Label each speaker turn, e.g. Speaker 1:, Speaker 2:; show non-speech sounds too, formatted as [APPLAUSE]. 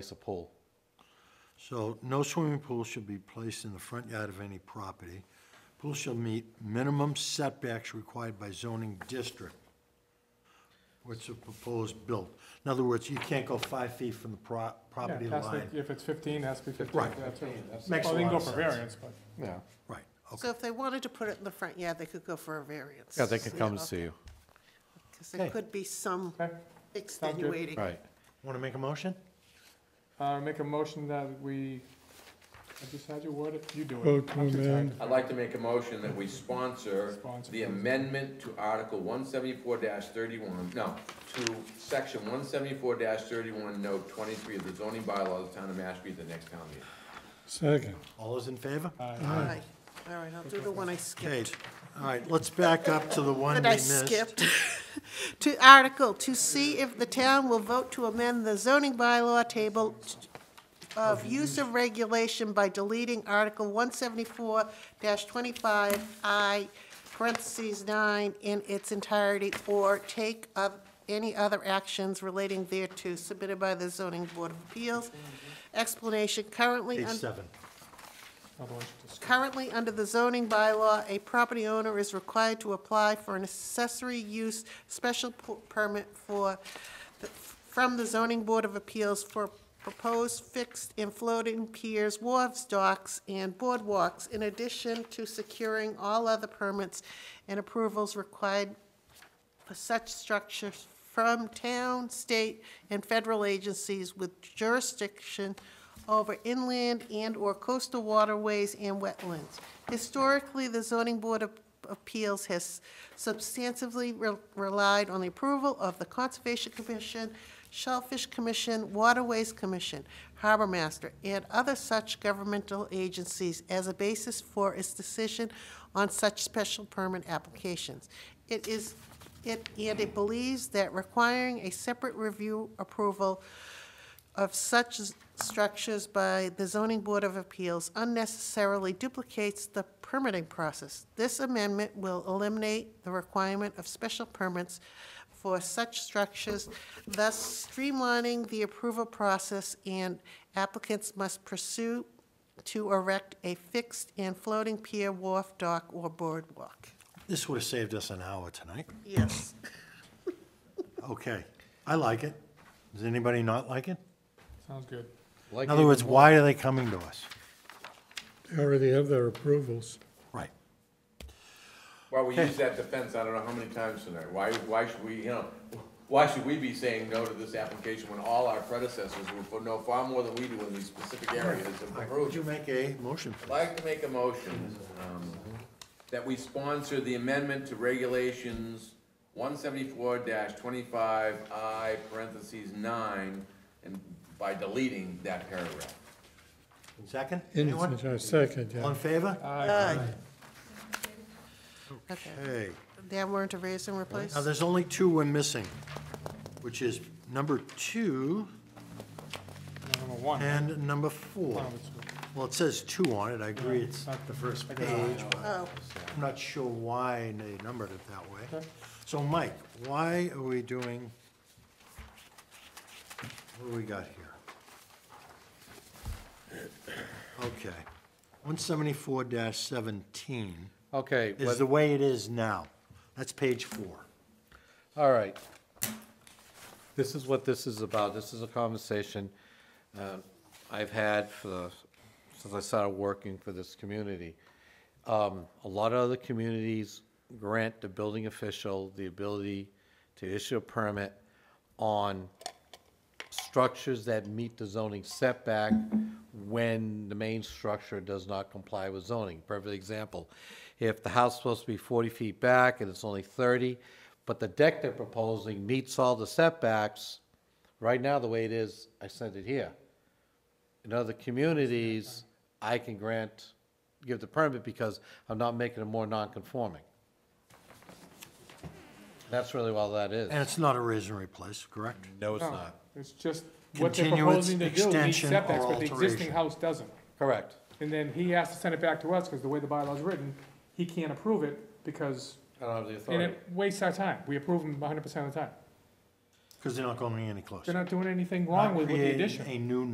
Speaker 1: place a pool.
Speaker 2: So no swimming pool should be placed in the front yard of any property. Pool shall meet minimum setbacks required by zoning district. What's the proposed build? In other words, you can't go five feet from the pro-
Speaker 3: Yeah,
Speaker 2: property
Speaker 3: it has to-
Speaker 2: line.
Speaker 3: If it's fifteen, it has to be fifteen.
Speaker 2: Right.
Speaker 3: That's right. That's-
Speaker 2: Makes
Speaker 3: Well, they
Speaker 2: a
Speaker 3: can go
Speaker 2: lot of
Speaker 3: for
Speaker 2: sense.
Speaker 3: variance, but
Speaker 1: Yeah.
Speaker 2: Right, okay.
Speaker 4: So if they wanted to put it in the front yard, they could go for a variance.
Speaker 1: Yeah, they can come and see you.
Speaker 4: Because there
Speaker 2: Okay.
Speaker 4: could be some
Speaker 3: Okay.
Speaker 4: extenuating.
Speaker 1: Right.
Speaker 2: Want to make a motion?
Speaker 3: Uh, make a motion that we, I just had you word it, you do it.
Speaker 5: Vote to
Speaker 3: I'm too tired.
Speaker 5: amend.
Speaker 6: I'd like to make a motion that we sponsor
Speaker 3: Sponsor.
Speaker 6: the amendment to Article one seventy-four thirty-one, no, to section one seventy-four thirty-one, note twenty-three of the zoning bylaws of the town of Mashpee at the next town meeting.
Speaker 5: Second.
Speaker 2: All those in favor?
Speaker 3: Uh,
Speaker 4: Right. All right, I'll do the one I
Speaker 2: Okay,
Speaker 4: skipped.
Speaker 2: all right, let's back up to the one we
Speaker 4: That I
Speaker 2: missed.
Speaker 4: skipped. [LAUGHS] To article, to see if the town will vote to amend the zoning bylaw table of use of regulation by deleting Article one seventy-four twenty-five I parentheses nine in its entirety or take of any other actions relating thereto submitted by the zoning board of appeals. Explanation currently.
Speaker 2: Page
Speaker 4: un-
Speaker 2: seven.
Speaker 3: otherwise you just-
Speaker 4: Currently, under the zoning bylaw, a property owner is required to apply for an accessory use special p- permit for, the- from the zoning board of appeals for proposed fixed and floating piers, wharves, docks, and boardwalks, in addition to securing all other permits and approvals required for such structures from town, state, and federal agencies with jurisdiction over inland and/or coastal waterways and wetlands. Historically, the zoning board of appeals has substantively re- relied on the approval of the Conservation Commission, Shellfish Commission, Waterways Commission, Harbor Master, and other such governmental agencies as a basis for its decision on such special permit applications. It is it, and it believes that requiring a separate review approval of such s- structures by the zoning board of appeals unnecessarily duplicates the permitting process. This amendment will eliminate the requirement of special permits for such structures, thus streamlining the approval process, and applicants must pursue to erect a fixed and floating pier, wharf, dock, or boardwalk.
Speaker 2: This would have saved us an hour tonight.
Speaker 4: Yes.
Speaker 2: Okay, I like it. Does anybody not like it?
Speaker 3: Sounds good.
Speaker 1: Like
Speaker 2: In other
Speaker 1: even
Speaker 2: words,
Speaker 1: more-
Speaker 2: why are they coming to us?
Speaker 5: They already have their approvals.
Speaker 2: Right.
Speaker 6: Well, we used that defense, I don't know how many times tonight, why, why should we, you know, why should we be saying no to this application when all our predecessors were, for no, far more than we do in these specific areas of
Speaker 2: All right,
Speaker 6: approval?
Speaker 2: Would you make a motion?
Speaker 6: I'd
Speaker 2: please?
Speaker 6: like to make a motion um, that we sponsor the amendment to regulations one seventy-four twenty-five I parentheses nine, and by deleting that paragraph.
Speaker 2: Second?
Speaker 5: In
Speaker 2: Anyone?
Speaker 5: Second,
Speaker 2: All in
Speaker 5: yeah.
Speaker 2: favor?
Speaker 4: Okay.
Speaker 2: Okay.
Speaker 4: Then we're into raise and replace?
Speaker 2: Now, there's only two we're missing, which is number two
Speaker 3: Number one.
Speaker 2: and number four.
Speaker 3: One of it's-
Speaker 2: Well, it says two on it, I agree, it's
Speaker 3: not
Speaker 2: the first
Speaker 3: I
Speaker 2: page,
Speaker 3: got it.
Speaker 2: but
Speaker 4: Oh,
Speaker 2: I'm not sure why they numbered it that way. So, Mike, why are we doing, what do we got here? Okay, 174-17.
Speaker 1: Okay,
Speaker 2: is the way it is now. That's page four.
Speaker 1: all right. This is what this is about. This is a conversation um, I've had for, the- since I started working for this community. Um, A lot of other communities grant the building official the ability to issue a permit on structures that meet the zoning setback when the main structure does not comply with zoning. Perfect example, if the house is supposed to be 40 feet back and it's only 30, but the deck they're proposing meets all the setbacks, right now, the way it is, I sent it here. In other communities, I can grant, give the permit because I'm not making it more non-conforming. That's really all that is.
Speaker 2: And it's Oh. not a raise and replace, correct?
Speaker 1: No, it's not.
Speaker 3: It's just what they're
Speaker 2: Continuance,
Speaker 3: proposing to do meets
Speaker 2: extension, or
Speaker 3: setbacks, but the
Speaker 2: alteration.
Speaker 3: existing house doesn't.
Speaker 1: Correct.
Speaker 3: And then he has to send it back to us, because the way the bylaw's written, he can't approve it, because,
Speaker 1: I don't have the
Speaker 3: and
Speaker 1: authority.
Speaker 3: it wastes our time. We approve them hundred percent of the time.
Speaker 2: Because they're not going any closer.
Speaker 3: They're not doing anything wrong with with the
Speaker 2: Creating
Speaker 3: addition.
Speaker 2: A new